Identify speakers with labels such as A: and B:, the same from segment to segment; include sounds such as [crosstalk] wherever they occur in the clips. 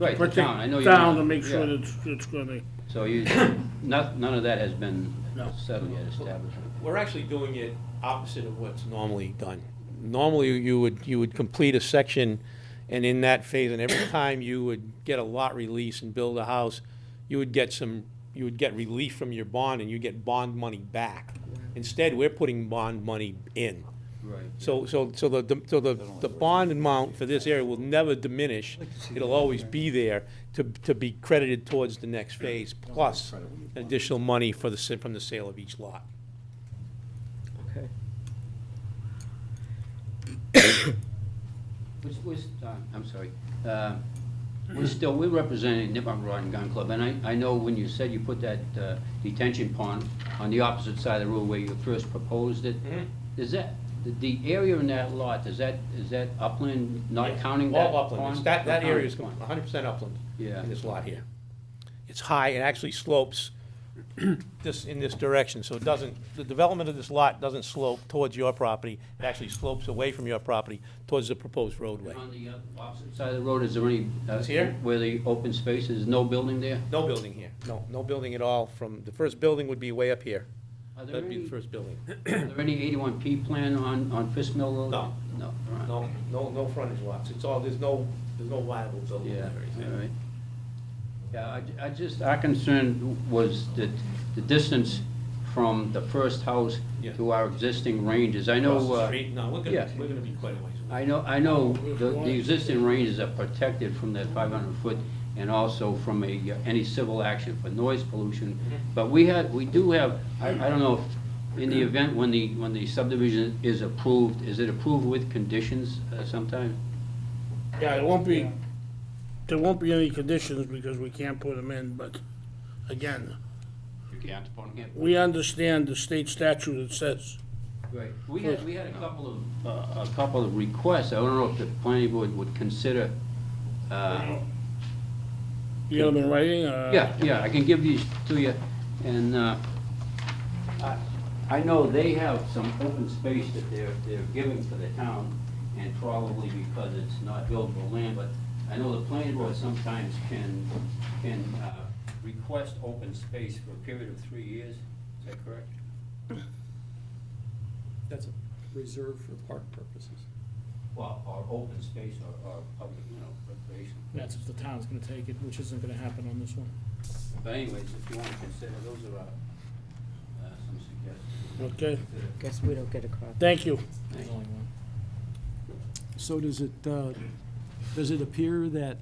A: Right, the
B: protect
A: town, I know you.
B: Town to make sure
A: yeah.
B: that it's, it's gonna,
A: So
B: [coughs]
A: you, not, none of that has been
B: No.
A: settled yet, established.
C: We're actually doing it opposite of what's normally done. Normally, you would, you would complete a section, and in that phase, and every time you would get a lot release and build a house, you would get some, you would get relief from your bond, and you get bond money back. Instead, we're putting bond money in.
A: Right.
C: So, so, so the- the, so the, the bond amount for this area will never diminish. It'll always be there to, to be credited towards the next phase, plus additional money for the, sa- from the sale of each lot.
A: [coughs] Okay. Was, was, uh, I'm sorry, uh, we're still, we're representing Nippon Rod and Gun Club, and I, I know when you said you put that uh, detention pond on the opposite side of the road where you first proposed it,
C: Mhm.
A: is that, the, the area in that lot, is that, is that upland, not
C: Yeah,
A: counting that pond?
C: All upland, It's that, that
A: Not
C: area is
A: counting pond.
C: hundred percent upland.
A: Yeah.
C: In this lot here. It's high, it actually slopes [clears throat] this, in this direction, so it doesn't, the development of this lot doesn't slope towards your property, it actually slopes away from your property towards the proposed roadway.
A: On the uh, opposite side of the road, is there any? uh,
C: It's here?
A: Where the open space is, no building there?
C: No building here, no, no building at all from, the first building would be way up here.
A: Are there
C: That'd be
A: any,
C: the first building.
A: are there any eighty-one P plan on, on Fisk Mill Road?
C: No.
A: No, all right.
C: No, no, no frontage lots, it's all, there's no, there's no viable building
A: Yeah,
C: there.
A: all right. Yeah, I, I just, our concern was that the distance from the first house
C: Yeah.
A: to our existing ranges. I know.
C: Across the
A: uh,
C: street, no, we're gonna,
A: yeah.
C: we're gonna be quite a ways.
A: I know, I know the, the existing ranges are protected from that five hundred foot and also from a, uh, any civil action for noise pollution. But we had, we do have, I, I don't know, if in the event when the, when the subdivision is approved, is it approved with conditions uh, sometime?
B: yeah, it won't be, there won't be any conditions because we can't put them in, but again,
A: You can't upon him.
B: we understand the state statute that says,
A: Right, we had, we had a couple of, uh, a couple of requests, I don't know if the planning board would consider, uh,
B: you know, in writing, uh.
A: Yeah, yeah, I can give these to you, and, uh, I, I know they have some open space that they're, they're giving to the town, and probably because it's not buildable land, but I know the planning board sometimes can, can, uh, request open space for a period of three years, is that correct?
D: That's reserved for park purposes.
A: Well, or open space, or, or public, you know, recreation.
E: That's if the town's gonna take it, which isn't gonna happen on this one.
A: But anyways, if you wanna consider, those are, uh, uh, some suggestions.
B: Okay,
F: Guess we don't get a copy.
B: thank you.
E: There's only one.
D: So does it, uh, does it appear that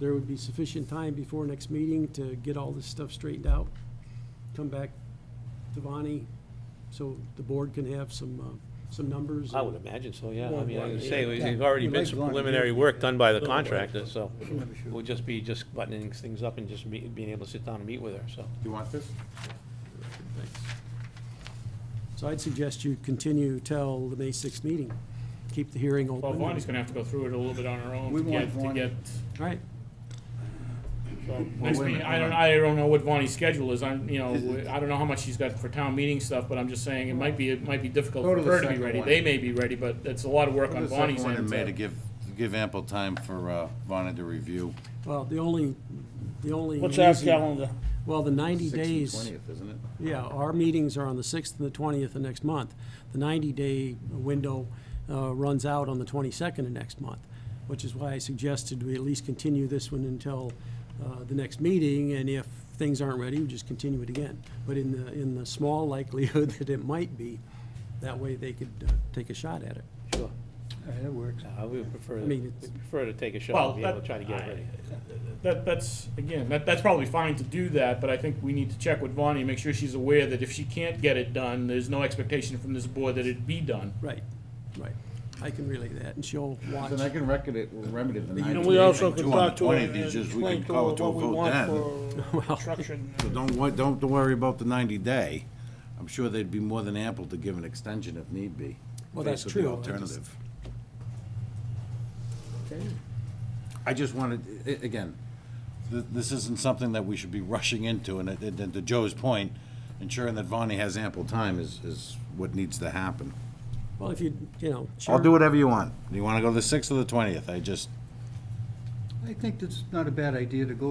D: there would be sufficient time before next meeting to get all this stuff straightened out? Come back to Bonnie, so the board can have some, uh, some numbers?
C: I would imagine so, yeah. I
D: Well,
C: mean, I
D: well,
C: would
D: yeah.
C: say, there's already
D: Yeah.
C: been some preliminary work done by the contractor, so we'll just be just buttoning things up and just me- being able to sit down and meet with her, so.
G: You want this?
D: So I'd suggest you continue till the May sixth meeting. Keep the hearing
E: Well,
D: open.
E: Bonnie's gonna have to go through it a little bit on her own
G: We
E: to
G: want
E: get, to
G: Bonnie.
E: get,
D: Right.
E: next
G: wait a
E: meeting,
G: minute,
E: I don't,
G: hold on.
E: I don't know what Bonnie's schedule is, I'm, you know, I don't know how much she's got for town meeting stuff, but I'm just saying, it might be, it might be difficult
G: Go to
E: for
G: the
E: her to be
G: second
E: ready.
G: one.
E: They may be ready, but it's a lot of work on
G: The
E: Bonnie's
G: second one in
E: end.
G: May to
E: to-
G: give, give ample time for uh, Vonna to review.
D: Well, the only, the only.
B: What's our
D: reason-
B: calendar?
D: Well, the ninety
G: 6th and
D: days.
G: 20th, isn't it?
D: Yeah, our meetings are on the 6th and the 20th of next month. The 90-day window uh, runs out on the 22nd of next month, which is why I suggested we at least continue this one until uh, the next meeting, and if things aren't ready, we just continue it again. But in the, in the small [laughs] likelihood that it might be, that way they could uh, take a shot at it.
C: Sure. That works. I would prefer,
D: I mean, it's-
C: we'd prefer to take a shot
E: Well,
C: and be able
E: that-
C: to try to get it ready.
E: That, that's, again, that, that's probably fine to do that, but I think we need to check with Bonnie, and make sure she's aware that if she can't get it done, there's no expectation from this board that it be done.
D: Right, right. I can relay that, and she'll watch.
G: Then I can record it, remedy the ninety days.
B: And we also
G: and
B: could
G: two on the
B: talk to her
G: 20th,
B: and
G: it's just we
B: explain
G: could
B: to
G: call
B: her
G: it to a
B: what we
G: vote then.
B: want for structured.
G: So don't, wor- don't worry about the ninety day. I'm sure they'd be more than ample to give an extension if need be.
D: Well, that's
G: Basically
D: true. I just-
G: Alternative. I just wanted, i- i- again, th- this isn't something that we should be rushing into, and it- it- and to Joe's point, ensuring that Vonnie has ample time is, is what needs to happen.
D: Well, if you, you know,
G: I'll do
D: sure,
G: whatever you want. Do you wanna go to the sixth or the twentieth? I just,
F: I think it's not a bad idea to go